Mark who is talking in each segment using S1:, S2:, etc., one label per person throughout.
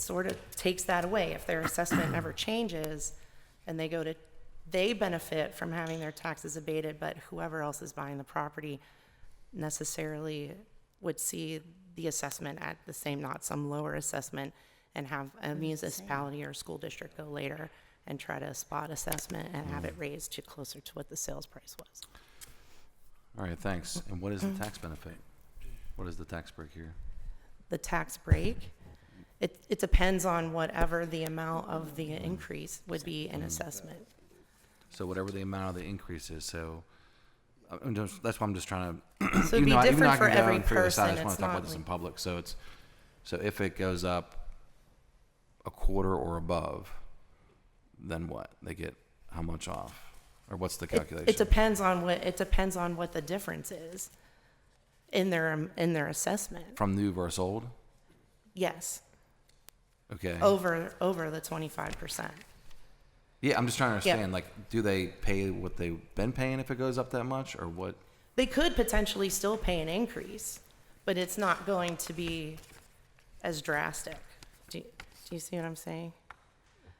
S1: sort of takes that away. If their assessment never changes and they go to, they benefit from having their taxes abated, but whoever else is buying the property necessarily would see the assessment at the same, not some lower assessment, and have a municipality or school district go later and try to spot assessment and have it raised to closer to what the sales price was.
S2: All right, thanks. And what is the tax benefit? What is the tax break here?
S1: the tax break. It, it depends on whatever the amount of the increase would be in assessment.
S2: So whatever the amount of the increase is, so, I- I'm just, that's why I'm just trying to.
S1: So it'd
S2: even
S1: be
S2: though I- even though
S1: different
S2: I can
S1: for
S2: go
S1: every
S2: and figure this out, I
S1: person.
S2: just wanna
S1: It's
S2: talk
S1: not
S2: about this in
S1: like-
S2: public, so it's, so if it goes up a quarter or above, then what? They get how much off? Or what's the
S1: It-
S2: calculation?
S1: It depends on what, it depends on what the difference is in their, um, in their assessment.
S2: From new versus old?
S1: Yes,
S2: Okay.
S1: over, over the twenty-five percent.
S2: Yeah, I'm just trying to understand, like, do they pay what they've been paying if it goes up that much, or what?
S1: They could potentially still pay an increase, but it's not going to be as drastic. Do, do you see what I'm saying?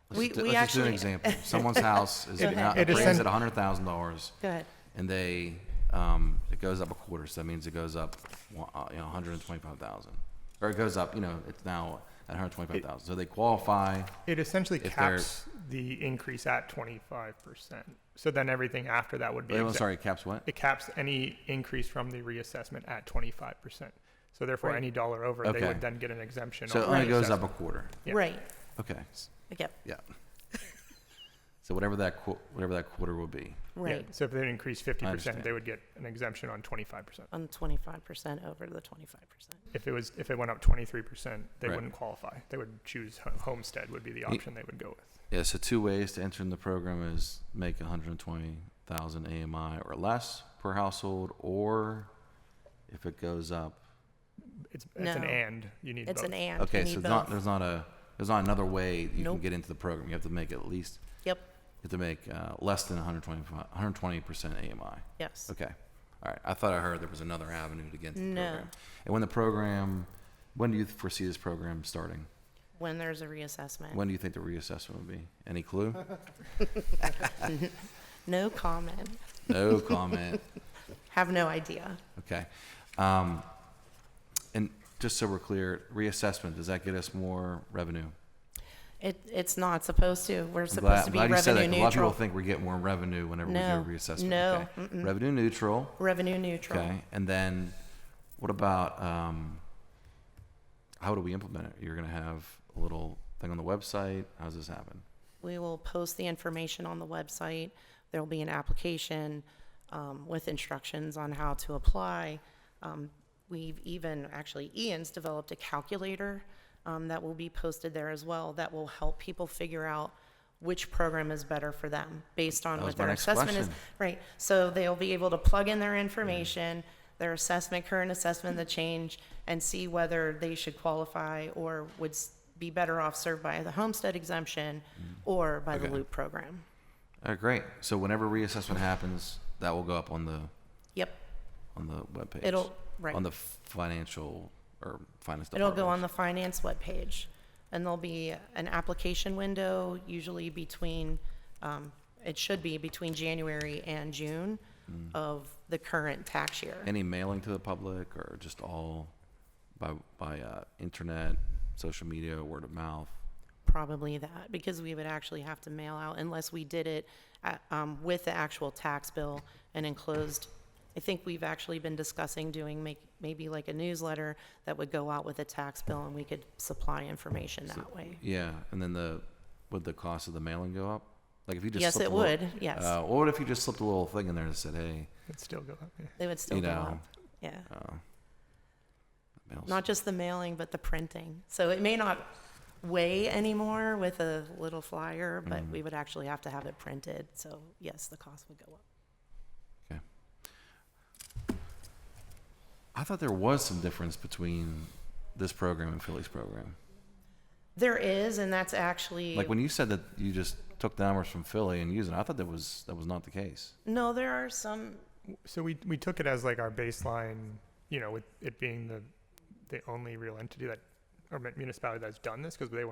S2: Let's
S1: We-
S2: just do-
S1: we
S2: let's just do an
S1: actually-
S2: example. Someone's house is not,
S3: It is
S2: appraised
S3: sen-
S2: at hundred thousand dollars,
S1: Go ahead.
S2: and they, um, it goes up a quarter, so that means it goes up, one- uh, you know, hundred and twenty-five thousand. Or it goes up, you know, it's now at hundred and twenty-five thousand, so they qualify,
S3: It essentially
S2: If they're-
S3: caps the increase at twenty-five percent. So then everything after that would be.
S2: wait, I'm
S3: exempt.
S2: sorry, caps what?
S3: It caps any increase from the reassessment at twenty-five percent. So therefore, any dollar over, they
S2: Okay.
S3: would then get an exemption.
S2: So it
S3: on
S2: only
S3: the
S2: goes up a
S3: assessment.
S2: quarter,
S3: Yeah.
S1: Right,
S2: okay,
S1: yep,
S2: yeah. So whatever that qu- whatever that quarter will be,
S3: Yeah,
S1: right,
S3: So if they increase fifty
S2: understand.
S3: percent, they would get an exemption on twenty-five percent.
S1: on twenty-five percent over the twenty-five percent.
S3: If it was, if it went up twenty-three percent, they
S2: Right.
S3: wouldn't qualify. They would choose ho- homestead would be the option they would go with.
S2: Yeah, so two ways to enter in the program is make 120,000 AMI or less per household, or if it goes up.
S3: It's, it's an
S1: No.
S3: and, you need both.
S1: It's an and.
S2: Okay,
S1: You
S2: so
S1: need
S2: not,
S1: both.
S2: there's not a there's not another way you
S1: Nope.
S2: can get into the program. You have to make at least
S1: Yep,
S2: you have to make uh, less than 120 120 percent AMI.
S1: yes.
S2: Okay, all right. I thought I heard there was another avenue to get into the
S1: No.
S2: program. And when the program, when do you foresee this program starting?
S1: When there's a reassessment.
S2: When do you think the reassessment will be? Any clue?
S1: No comment.
S2: No comment.
S1: Have no idea.
S2: Okay. Um, and just so we're clear, reassessment, does that get us more revenue?
S1: It, it's not supposed to. We're
S2: I'm glad,
S1: supposed to
S2: I'm
S1: be
S2: glad you said that,
S1: revenue
S2: 'cause A lot of people
S1: neutral.
S2: think we're getting more revenue whenever
S1: No,
S2: we do reassessment.
S1: no,
S2: okay. Revenue neutral.
S1: Revenue neutral.
S2: Okay. And then what about um, how do we implement it? You're going to have a little thing on the website. How does this happen?
S1: We will post the information on the website. There'll be an application, um, with instructions on how to apply. Um, we've even, actually Ian's developed a calculator, um, that will be posted there as well that will help people figure out which program is better for them based on
S2: That was
S1: what
S2: my
S1: their
S2: next
S1: assessment is.
S2: question.
S1: Right, so they'll be able to plug in their information, their assessment, current assessment, the change, and see whether they should qualify or would s- be better off served by the homestead exemption or by the
S2: Mm-hmm. Okay.
S1: loop program.
S2: All right, Uh, great. So whenever reassessment happens, that will go up on the
S1: Yep,
S2: on the webpage.
S1: it'll, right,
S2: on the financial or finance
S1: it'll
S2: department.
S1: go on the finance webpage. And there'll be an application window, usually between, um, it should be between January and June
S2: Mm.
S1: of the current tax year.
S2: Any mailing to the public or just all by, by uh, internet, social media, word of mouth?
S1: Probably that, because we would actually have to mail out unless we did it at, um, with the actual tax bill and enclosed. I think we've actually been discussing doing make, maybe like a newsletter that would go out with a tax bill and we could supply information that way.
S2: Yeah, and then the, would the cost of the mailing go up? Like if you just.
S1: Yes,
S2: slipped
S1: it
S2: a little-
S1: would, yes.
S2: Uh, what if you just slipped a little thing in there that said, hey,
S3: It'd still go up, yeah.
S1: They would still
S2: you
S1: go
S2: know,
S1: up, yeah.
S2: uh, mail's-
S1: Not just the mailing, but the printing. So it may not weigh anymore with a little flyer, but
S2: Mm-hmm.
S1: we would actually have to have it printed. So yes, the cost would go up.
S2: I thought there was some difference between this program and Philly's program.
S1: There is, and that's actually.
S2: Like when you said that you just took the numbers from Philly and used it, I thought that was, that was not the case.
S1: No, there are some
S3: So we, we took it as like our baseline, you know, with it being the, the only real entity that, or mun- municipality that's done this, because they